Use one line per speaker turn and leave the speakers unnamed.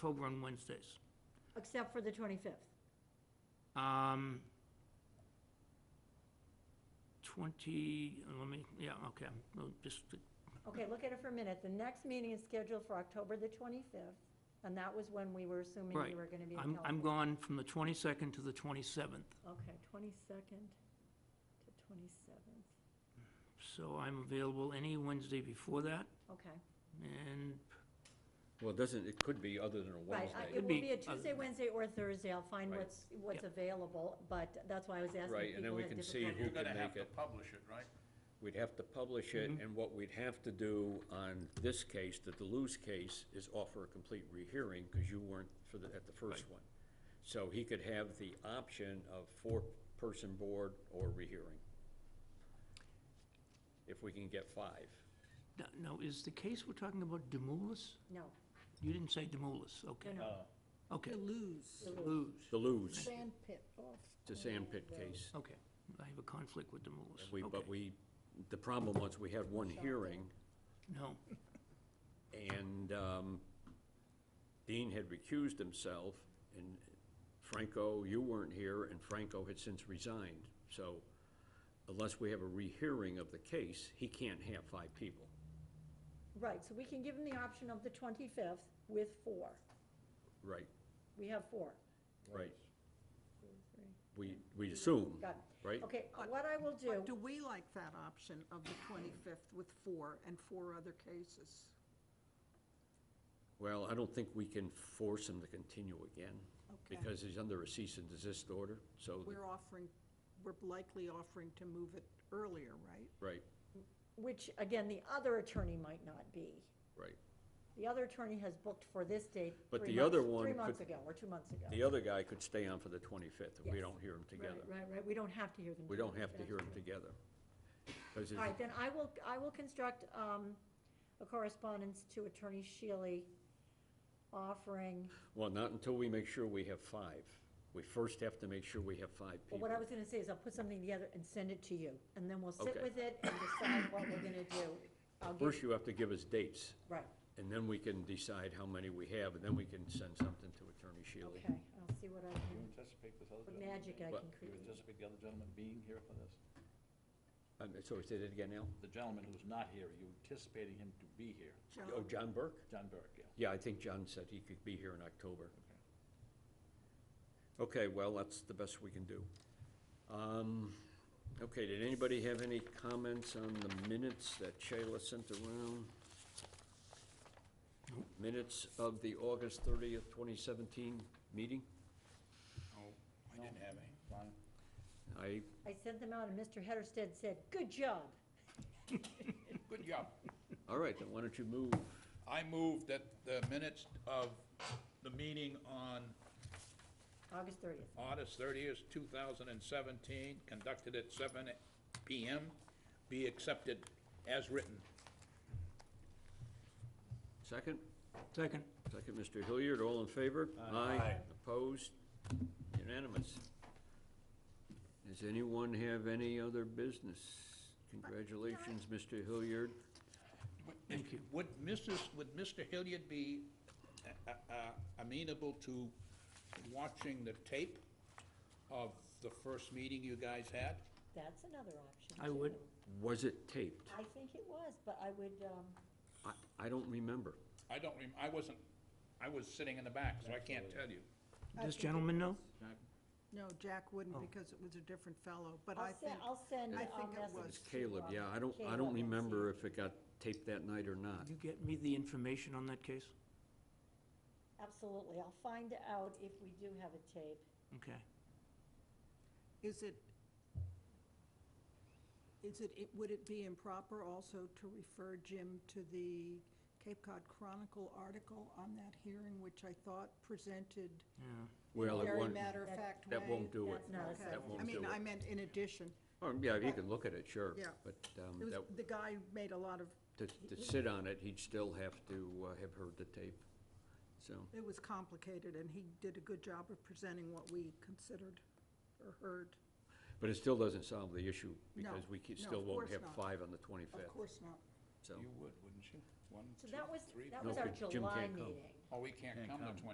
October on Wednesdays.
except for the 25th.
Um, 20, let me, yeah, okay, well, just,
Okay, look at it for a minute. The next meeting is scheduled for October the 25th, and that was when we were assuming
Right.
you were going to be in
I'm, I'm
California.
gone from the 22nd to the 27th,
Okay, 22nd to 27th,
so I'm available any Wednesday before that,
okay.
and
Well, it doesn't, it could be other than a
Right, I-
Wednesday.
it
Could
will
be
be a
other
Tuesday,
than-
Wednesday, or Thursday. I'll find
Right.
what's, what's available, but that's why I was asking
Right,
if
and then
people
we
had
can see
difficulty.
who
You're gonna
can
have
make
to
it.
publish it, right?
We'd have to publish it, and what we'd have to do on this case, the Deleuze case, is offer a complete rehearing, because you weren't for the, at the first one. So he could have the option of four-person board or rehearing. If we can get five.
no- now, is the case we're talking about Demoulas?
No,
You didn't say Demoulas, okay,
no, no.
okay.
Lose.
Lose,
Deleuze,
Sand pit off.
the sand pit case.
okay, I have a conflict with Demoulas.
We, but
Okay.
we, the problem was, we had one hearing,
No,
And um, Dean had recused himself, and Franco, you weren't here, and Franco had since resigned. So unless we have a rehearing of the case, he can't have five people. Oh.
Right, so we can give them the option of the 25th with four.
Right,
We have four.
right. We, we assume,
Got
right?
it. Okay, what I will do.
But do we like that option of the 25th with four and four other cases?
Well, I don't think we can force him to continue again,
Okay.
because he's under a cease and desist order, so,
We're offering, we're likely offering to move it earlier, right?
right,
Which, again, the other attorney might not be.
right.
The other attorney has booked for this date.
But
three
the other
months-
one
Three
could-
months ago, or two months ago.
The other guy could stay on for the 25th, if we
Yes.
don't hear him
Right,
together.
right, right, we don't have to hear them.
We don't have to
together.
hear them together. 'Cause
All right,
it's-
then I will, I will construct um, a correspondence to Attorney Shealy offering,
Well, not until we make sure we have five. We first have to make sure we have
well,
five people.
what I was gonna say is I'll put something together and send it to you, and then we'll sit
Okay.
with it and decide what we're gonna do. I'll give,
First, you have to give us dates,
right,
and then we can decide how many we have, and then we can send something to Attorney Shealy.
okay, I'll see what I
Do you
can,
anticipate this other
what
gentleman?
magic I
What?
can
Do you
create.
anticipate the other gentleman being here for this?
Um, So, say that again, Al?
The gentleman who's not here, are you anticipating him to be here?
Oh, John Burke?
John Burke, yeah.
Yeah, I think John said he could be here in October. Okay, well, that's the best we can do. Um, Okay, did anybody have any comments on the minutes that Shayla sent around? Minutes of the August 30th, 2017 meeting?
I didn't have any. Fine.
I,
I sent them out, and Mr. Hedersted said, good job.
Good job.
all right, then why don't you move?
I move that the minutes of the meeting on
August 30th.
August thirtieth, two thousand and seventeen, conducted at seven PM, be accepted as written.
Second?
second.
Second, Mr. Hilliard, all in favor? Aye. Opposed? Unanimous. Does anyone have any other business? Congratulations, Mr. Hilliard.
Thank you. Would Mrs., would Mr. Hilliard be uh, uh, amenable to watching the tape of the first meeting you guys had?
That's another option.
I would.
too.
Was it taped?
I think it was, but I would, um,
I, I don't remember.
I don't, rem- I wasn't, I was sitting in the back, so I can't tell you.
This gentleman know?
No, Jack wouldn't
Oh.
because it was a different fellow, but I
I'll send,
think,
I'll send
I
a
think it
message
was.
It's
to,
Caleb,
um,
yeah, I don't, I
Caleb
don't
and see.
remember if it got taped that night or not.
Could you get me the information on that case?
Absolutely, I'll find out if we do have a tape.
Okay.
is it, is it, it- would it be improper also to refer Jim to the Cape Cod Chronicle article on that hearing, which I thought presented
Yeah.
Well, it
very
won't,
matter-of-fact way?
that won't do it.
That's not a
Okay.
substitute.
won't
I mean,
do it.
I meant in addition.
Oh, yeah, you can look at it, sure.
Yeah.
But,
It
um,
was,
that,
the guy made a lot of,
to, to sit on it, he'd still have to uh, have heard the tape, so.
it was complicated, and he did a good job of presenting what we considered or heard.
But it still doesn't solve the issue,
No,
because we ca-
no,
still
of
won't
course
have
not.
five on the twenty-fifth,
Of course not.
so.
You would, wouldn't you? One,
So
two,
that was,
three,
that
No,
was our
because Jim
July
can't come.
meeting.
Oh, we can't
Can't
come to
come.
twenty.